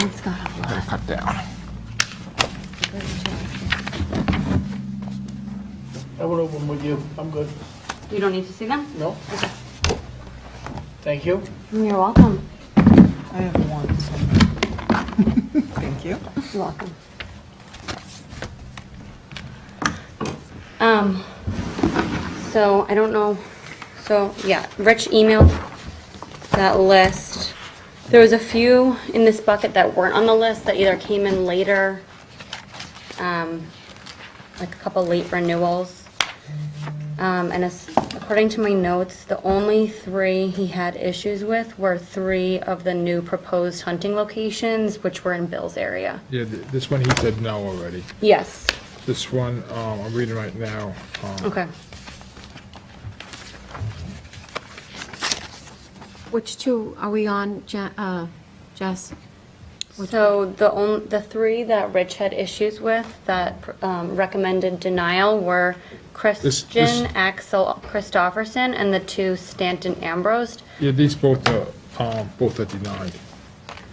It's got a lot. Gotta cut down. I will open with you. I'm good. You don't need to see them? No? Thank you. You're welcome. I have one. so- Thank you. You're welcome. Um, so I don't know, so, yeah, Rich emailed that list. There was a few in this bucket that weren't on the list that either came in later, um, like a couple late renewals. Um, and as, according to my notes, the only three he had issues with were three of the new proposed hunting locations, which were in Bill's area. Yeah, th- this one he said no already. Yes, This one, um, I'm reading right now. um, okay. Which two are we on, Je- uh, Jess? So the only, the three that Rich had issues with that um, recommended denial were this- Christian Axel Christofferson and the two Stanton Ambrose. Yeah, these both are, um, both are denied.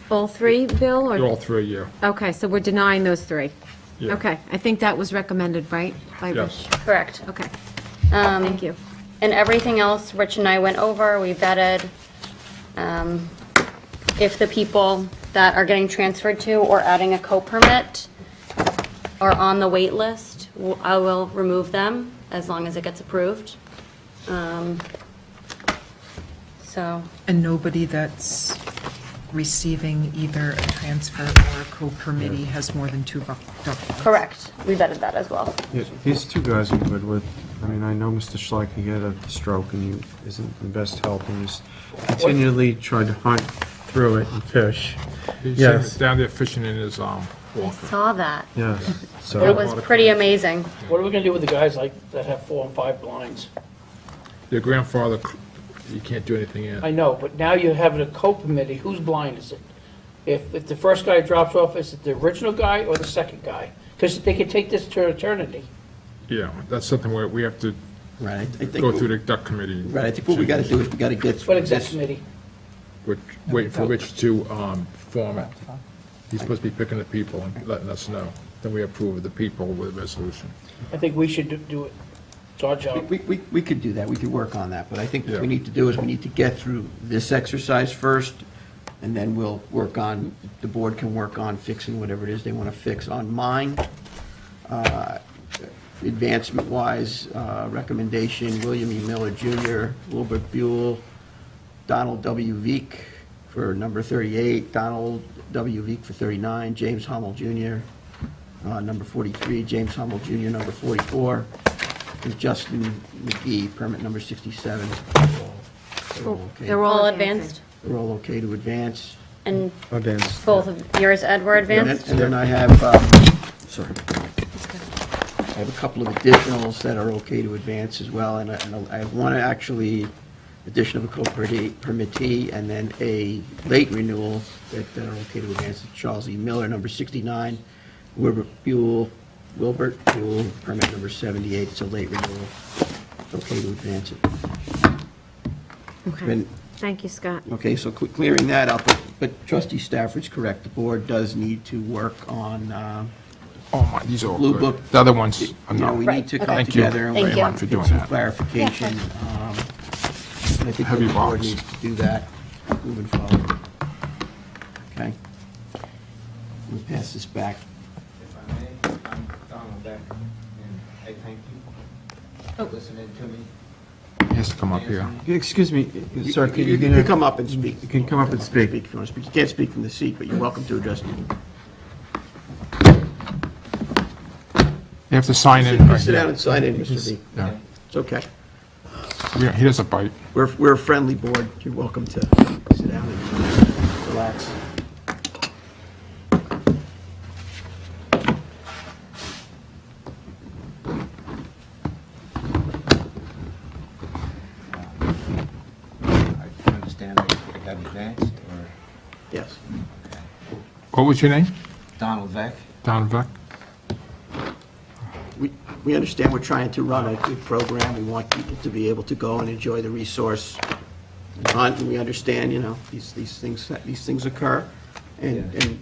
All three, Bill, They're or? all three, yeah. Okay, so we're denying those three. Yeah. Okay, I think that was recommended, right? by Rich? Yes. Correct. Okay, Um, thank you. And everything else, Rich and I went over, we vetted um, if the people that are getting transferred to or adding a co-permit are on the wait list, w- I will remove them as long as it gets approved. Um, So, And nobody that's receiving either a transfer or a co-permittee has more than two doc- documents? correct, we vetted that as well. Yeah, these two guys I'm good with. I mean, I know Mr. Schleck, he had a stroke and he isn't the best help and he's continually trying to hunt through it and fish. He's Yes. down there fishing in his, um, I walker. saw that. Yeah, so. It was pretty amazing. What are we gonna do with the guys like, that have four and five blinds? Your grandfather, cl- you can't do anything in. I know, but now you're having a co-permittee. Whose blind is it? If, if the first guy drops off, is it the original guy or the second guy? Because they could take this to eternity. Yeah, that's something where we have to Right, I think, go through the duck committee. right, I think what we gotta do is we gotta get What through exact this. committee? Which, wait for Rich to, um, form it. He's supposed to be picking the people and letting us know. Then we approve of the people with a resolution. I think we should do- do it. It's our job. We, we, we could do that, we could work on that, but I think what Yeah. we need to do is we need to get through this exercise first, and then we'll work on, the board can work on fixing whatever it is they wanna fix on mine. uh, Advancement-wise, uh, recommendation, William E. Miller Jr., Wilbert Buell, Donald W. Veek for number 38, Donald W. Veek for 39, James Hummel Jr., uh, number 43, James Hummel Jr., number 44, and Justin McGee, permit number 67. They're all okay- They're All advancing. advanced, they're all okay to advance. and Advanced. both of yours, Ed, were And then- advanced? And then I have, um, sorry. I have a couple of additionals that are okay to advance as well, and I- and I have one actually addition of a co-permittee, and then a late renewal that that are okay to advance, Charles E. Miller, number 69, Wilbert Buell, Wilbert Buell, permit number 78, it's a late renewal, It's okay to advance it. Okay, Then- thank you, Scott. Okay, so cle- clearing that up, but- but trustee Stafford's correct, the board does need to work on um, Oh my, these are all Blue good. Book. The other ones are You know, no. we Right, need to okay. come Thank you. together and Thank work you. on for doing some that. clarification. um, And I think Heavy the board box. needs to do that moving forward. Okay? We'll pass this back. If I may, I'm Donald Beck, and I thank you for listening to me. He has to come up here. Excuse me, sir, can you? You can come up and speak. You can come up and speak. If you want to speak. You can't speak from the seat, but you're welcome to address me. You have to sign in. Sit right sit down here. and sign in, Mr. B. Yeah. It's okay. We don't- He doesn't bite. We're, we're a friendly board. You're welcome to sit down and relax. I understand I I got advanced, or Yes. What was your name? Donald Beck. Don Vec? we, we understand we're trying to run a good program. We want people to be able to go and enjoy the resource and hunt, and we understand, you know, these, these things, these things occur. And, Yeah. and